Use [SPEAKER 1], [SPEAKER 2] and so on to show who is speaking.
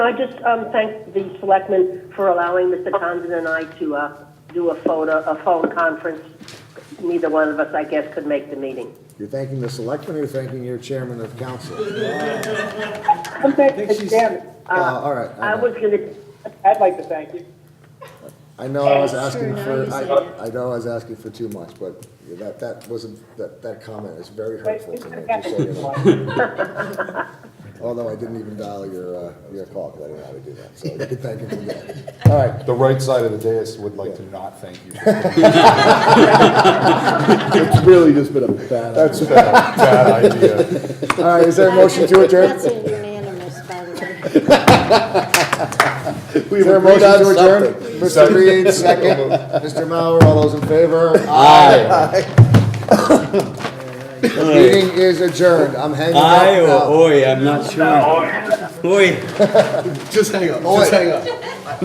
[SPEAKER 1] I just um, thank the selectmen for allowing Mr. Townsend and I to uh, do a phone, a phone conference. Neither one of us, I guess, could make the meeting.
[SPEAKER 2] You're thanking the selectmen or you're thanking your chairman of council?
[SPEAKER 1] I'm back
[SPEAKER 2] think she's-
[SPEAKER 1] Chairman.
[SPEAKER 2] Uh, all right,
[SPEAKER 1] I
[SPEAKER 2] I know.
[SPEAKER 1] was gonna,
[SPEAKER 3] I'd like to thank you.
[SPEAKER 2] I know I was
[SPEAKER 4] Sure,
[SPEAKER 2] asking
[SPEAKER 4] now
[SPEAKER 2] for,
[SPEAKER 4] you say
[SPEAKER 2] I, I know I was asking for too much, but that, that wasn't, that, that comment is very hurtful to me, just so you know. Although I didn't even dial your, uh, your call, because I didn't know how to do that, so you can thank him for that. All right,
[SPEAKER 5] The right side of the dais would like to not thank you. That's
[SPEAKER 2] it's really just been a bad.
[SPEAKER 5] a bad, bad idea.
[SPEAKER 2] All right, is there a motion to
[SPEAKER 4] That's
[SPEAKER 2] adjourn?
[SPEAKER 4] a unanimous, by the way.
[SPEAKER 2] Is there a motion to adjourn? Mr.
[SPEAKER 5] Second.
[SPEAKER 2] Reed, second. Mr. Mauer, all those in favor?
[SPEAKER 5] Aye.
[SPEAKER 2] The meeting is adjourned. I'm hanging up
[SPEAKER 6] I
[SPEAKER 5] oh,
[SPEAKER 2] now.
[SPEAKER 6] or oi, I'm not sure. Oi.
[SPEAKER 7] Just hang up.
[SPEAKER 2] Oh, wait.
[SPEAKER 7] Just hang up.